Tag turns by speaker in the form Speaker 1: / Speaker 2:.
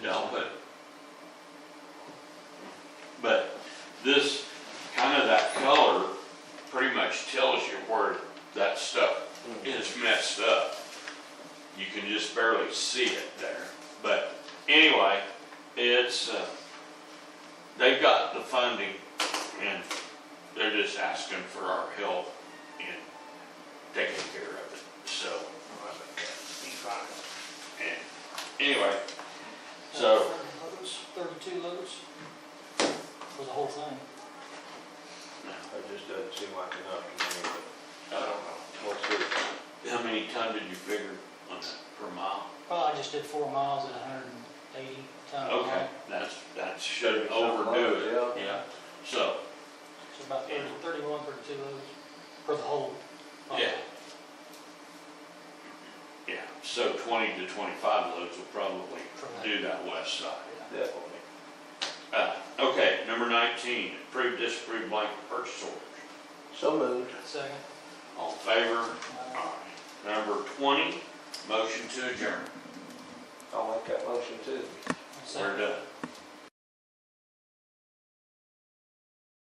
Speaker 1: this, kind of that color pretty much tells you where that stuff is messed up. You can just barely see it there, but anyway, it's, uh, they've got the funding and they're just asking for our help in taking care of it, so,
Speaker 2: Be fine.
Speaker 1: and, anyway, so.
Speaker 2: Loads, Thirty-two loads? For the whole thing?
Speaker 3: That just doesn't seem like enough to me,
Speaker 1: I don't know.
Speaker 3: but we'll see.
Speaker 1: How many ton did you figure on that per mile?
Speaker 2: Well, I just did four miles at hundred and eighty ton a
Speaker 1: Okay,
Speaker 2: mile.
Speaker 1: that's, that shouldn't overdo it, yeah, so,
Speaker 2: So about thirty-
Speaker 1: Yeah.
Speaker 2: thirty-one, thirty-two loads for the whole. mile.
Speaker 1: Yeah. yeah, so twenty to twenty-five loads will probably do that west side.
Speaker 3: Definitely.
Speaker 1: Uh, okay, number nineteen, approve, disapprove blank purchase orders.
Speaker 3: So moved.
Speaker 2: Second.
Speaker 1: All in favor?
Speaker 2: uh,
Speaker 1: Aye. Number twenty, motion to adjourn.
Speaker 3: I'll make that motion too.
Speaker 1: We're
Speaker 2: second.
Speaker 1: done.